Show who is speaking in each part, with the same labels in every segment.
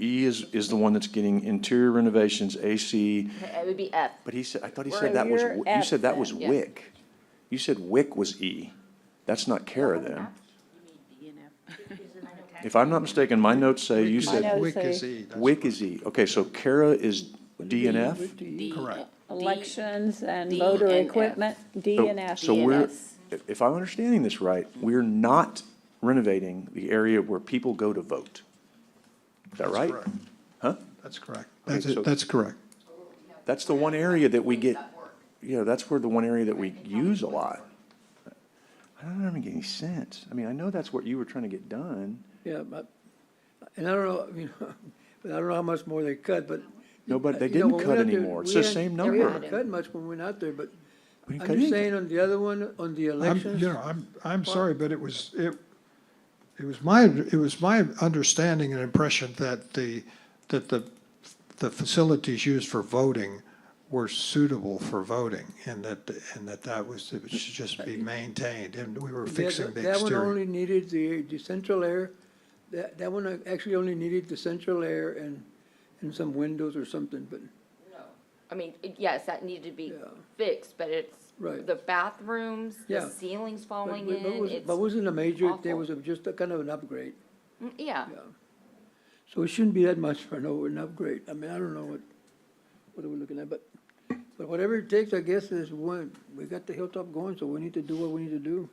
Speaker 1: E is, is the one that's getting interior renovations, AC,
Speaker 2: It would be F.
Speaker 1: but he said, I thought he
Speaker 3: We're
Speaker 1: said
Speaker 3: in
Speaker 1: that was,
Speaker 3: year
Speaker 1: Wi- you
Speaker 3: F
Speaker 1: said that was
Speaker 3: then,
Speaker 2: yeah.
Speaker 1: WIC. You said WIC was E. That's not Kara then. If I'm not mistaken, my notes say you
Speaker 3: I
Speaker 1: said
Speaker 3: know.
Speaker 4: Wick is
Speaker 3: say-
Speaker 4: E, that's
Speaker 1: WIC is E. Okay, so Kara is D and F?
Speaker 4: correct.
Speaker 3: Elections and
Speaker 2: D
Speaker 3: motor
Speaker 2: and F.
Speaker 3: equipment, D
Speaker 1: So-
Speaker 3: and F.
Speaker 1: So we're,
Speaker 2: DNS.
Speaker 1: if- if I'm understanding this right, we're not renovating the area where people go to vote. Is that
Speaker 4: That's
Speaker 1: right?
Speaker 4: correct.
Speaker 1: Huh?
Speaker 4: That's correct. That's,
Speaker 1: so-
Speaker 4: it. that's correct.
Speaker 1: That's the one area that we get, you know, that's where the one area that we use a lot. I don't make any sense. I mean, I know that's what you were trying to get done.
Speaker 5: Yeah, but, and I don't know, you know, but I don't know how much more they cut, but.
Speaker 1: No, but they
Speaker 5: you know,
Speaker 1: didn't
Speaker 5: when we
Speaker 1: cut
Speaker 5: out there,
Speaker 1: anymore. It's
Speaker 5: we
Speaker 1: the
Speaker 5: didn't-
Speaker 1: same
Speaker 5: yeah, We
Speaker 1: number.
Speaker 5: didn't cut much when we went out there, but
Speaker 1: We didn't cut
Speaker 5: I'm
Speaker 1: anything.
Speaker 5: just saying on the other one, on the
Speaker 4: I'm,
Speaker 5: elections.
Speaker 4: you know, I'm, I'm sorry, but it was, it, it was my, it was my understanding and impression that the, that the, the facilities used for voting were suitable for voting, and that, and that that was, it should just be maintained, and we were
Speaker 5: that-
Speaker 4: fixing the
Speaker 5: That one
Speaker 4: exterior.
Speaker 5: only needed the, the central air, that, that one actually only needed the central air and, and some windows or something, but,
Speaker 2: I mean, it- yes, that needed to be
Speaker 5: Yeah.
Speaker 2: fixed, but it's
Speaker 5: Right.
Speaker 2: the bathrooms, the
Speaker 5: Yeah.
Speaker 2: ceilings
Speaker 5: but-
Speaker 2: falling
Speaker 5: but- but
Speaker 2: in,
Speaker 5: was-
Speaker 2: it's,
Speaker 5: but wasn't a major,
Speaker 2: awful.
Speaker 5: there was a- just a kind of an upgrade.
Speaker 2: Mm, yeah.
Speaker 5: So it shouldn't be that much for an over and upgrade. I mean, I don't know what, what we're looking at, but, but whatever it takes, I guess, is one, we got the hilltop going, so we need to do what we need to do.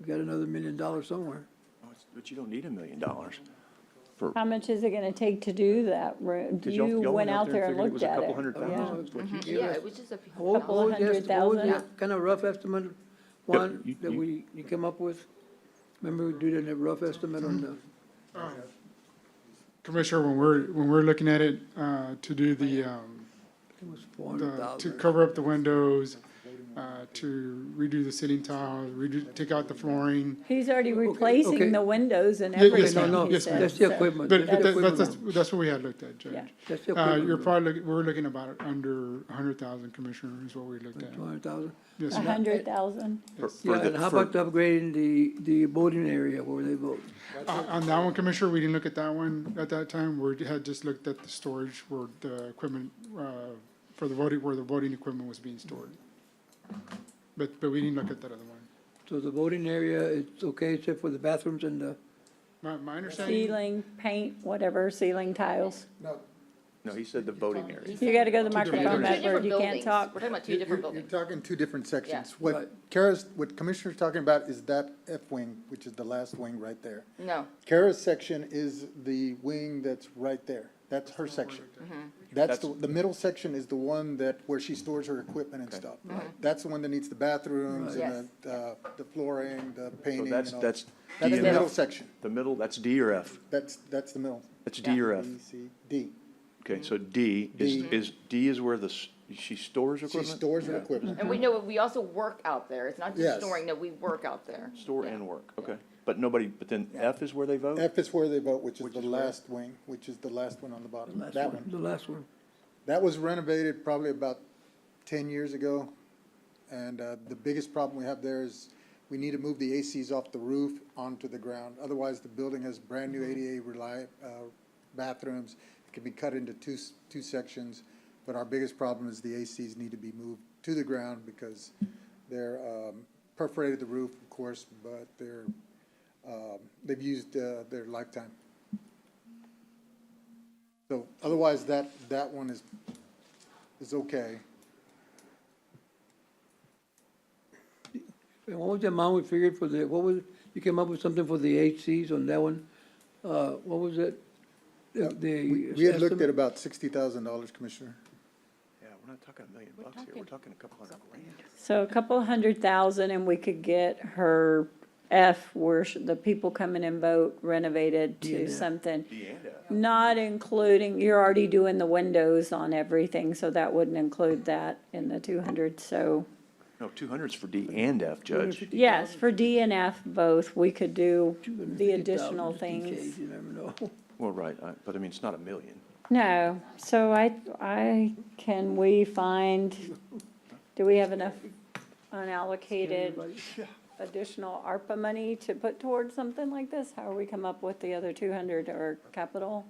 Speaker 5: We got another million dollars somewhere.
Speaker 1: Oh, But you don't need a million dollars. for-
Speaker 3: How much is it gonna take to do that? Ro-
Speaker 1: 'cause y'all-
Speaker 3: You
Speaker 1: y'all
Speaker 3: went out there and
Speaker 1: figured
Speaker 3: looked
Speaker 1: It was a
Speaker 3: at
Speaker 1: couple
Speaker 3: it.
Speaker 1: hundred
Speaker 5: Oh, no,
Speaker 1: thousand.
Speaker 5: it's what you gave
Speaker 2: Yeah,
Speaker 5: us.
Speaker 2: it was just a few
Speaker 5: What- what
Speaker 2: dollars.
Speaker 5: was the-
Speaker 3: hundred
Speaker 5: what was the
Speaker 3: thousand.
Speaker 5: Kind of rough estimate,
Speaker 1: you-
Speaker 5: Juan, that
Speaker 1: you-
Speaker 5: we, you came up with? Remember, we did a rough estimate on the,
Speaker 6: Commissioner, when we're, when we're looking at it, uh, to do the, um,
Speaker 5: it was four hundred
Speaker 6: the, to
Speaker 5: thousand.
Speaker 6: cover up the windows, uh, to redo the sitting tiles, redo, take out the flooring.
Speaker 3: He's already replacing
Speaker 5: okay.
Speaker 3: the windows and
Speaker 6: Yeah, yes,
Speaker 3: everything,
Speaker 6: ma'am.
Speaker 5: No, no,
Speaker 3: he
Speaker 6: Yes, ma'am.
Speaker 5: that's
Speaker 3: said.
Speaker 5: the
Speaker 3: so-
Speaker 5: equipment.
Speaker 6: But
Speaker 5: that's the
Speaker 6: that, that's,
Speaker 5: equipment.
Speaker 6: that's- that's what we had looked at,
Speaker 3: Yeah.
Speaker 6: Judge.
Speaker 5: That's the
Speaker 6: Uh,
Speaker 5: equipment.
Speaker 6: you're probably, look- we're looking about under a hundred thousand, Commissioner, is what we looked at.
Speaker 5: Two hundred thousand.
Speaker 6: Yes,
Speaker 3: A
Speaker 6: ma'am.
Speaker 3: hundred thousand.
Speaker 1: For- for
Speaker 5: Yeah,
Speaker 1: the-
Speaker 5: and how
Speaker 1: for-
Speaker 5: about upgrading the, the voting area where they vote?
Speaker 6: Uh, On that one, Commissioner, we didn't look at that one at that time. We had just looked at the storage where the equipment, uh, for the voting, where the voting equipment was being stored. But, but we didn't look at that other one.
Speaker 5: So the voting area, it's okay except for the bathrooms and the,
Speaker 6: My, my understanding.
Speaker 3: Ceiling, paint, whatever, ceiling tiles.
Speaker 1: No, he said the voting area.
Speaker 3: You gotta go to the
Speaker 2: Two different
Speaker 3: microphone, Edward, you can't
Speaker 2: buildings.
Speaker 3: talk.
Speaker 2: We're talking about two
Speaker 7: You're-
Speaker 2: different
Speaker 7: you're-
Speaker 2: buildings.
Speaker 7: You're talking two different sections.
Speaker 5: Right.
Speaker 7: What Kara's, what Commissioner's talking about is that F wing, which is the last wing right there.
Speaker 2: No,
Speaker 7: Kara's section is the wing that's right there. That's her section.
Speaker 1: Mm-hmm.
Speaker 7: That's the, the middle section is the one that, where she stores her equipment and stuff.
Speaker 1: Mm-hmm.
Speaker 7: That's the one that needs the bathrooms
Speaker 2: Yes.
Speaker 7: and the, uh, the flooring, the painting and
Speaker 1: that's-
Speaker 7: all.
Speaker 1: that's D
Speaker 7: That's the
Speaker 1: and F.
Speaker 7: middle section.
Speaker 1: The middle, that's D or F?
Speaker 7: That's, that's the middle.
Speaker 1: That's D or F?
Speaker 7: B, C, D.
Speaker 1: Okay, so D is,
Speaker 7: D.
Speaker 1: is, D is where the, s- she stores
Speaker 7: She
Speaker 1: equipment?
Speaker 7: stores her equipment.
Speaker 2: and we know, we also work out there, it's not just
Speaker 7: Yes.
Speaker 2: storing, no, we work out there.
Speaker 1: Store and work, okay. But nobody, but then F is where they vote?
Speaker 7: F is where they vote, which is the last wing, which is the last one on the
Speaker 5: the
Speaker 7: bottom.
Speaker 5: last
Speaker 7: That
Speaker 5: one,
Speaker 7: one.
Speaker 5: the last one.
Speaker 7: That was renovated probably about ten years ago. And uh, the biggest problem we have there is we need to move the ACs off the roof onto the ground. Otherwise, the building has brand-new ADA reli, uh, bathrooms. It can be cut into two, s- two sections. But our biggest problem is the ACs need to be moved to the ground because they're um, perforated the roof, of course, but they're, um, they've used uh, their lifetime. So otherwise, that, that one is, is okay.
Speaker 5: And what was the amount we figured for the, what was, you came up with something for the HCs on that one? Uh, what was it? The-
Speaker 7: We
Speaker 5: The.
Speaker 7: we had looked at
Speaker 5: estimate?
Speaker 7: about sixty thousand dollars, Commissioner.
Speaker 1: Yeah, we're not talking a million bucks here, we're talking a couple hundred grand.
Speaker 3: So a couple hundred thousand and we could get her F where sh- the people come in and vote renovated to something.
Speaker 1: D and F.
Speaker 3: Not including, you're already doing the windows on everything, so that wouldn't include that in the two hundred, so.
Speaker 1: No, two hundred's for D and F, Judge.
Speaker 3: Yes, for D and F both, we could do the
Speaker 5: 250,000
Speaker 3: additional
Speaker 5: just in case,
Speaker 3: things.
Speaker 5: You never know.
Speaker 1: Well, right, I- but I mean, it's not a million.
Speaker 3: No, so I, I, can we find, do we have enough unallocated additional ARPA money to put towards something like this? How are we come up with the other two hundred or capital?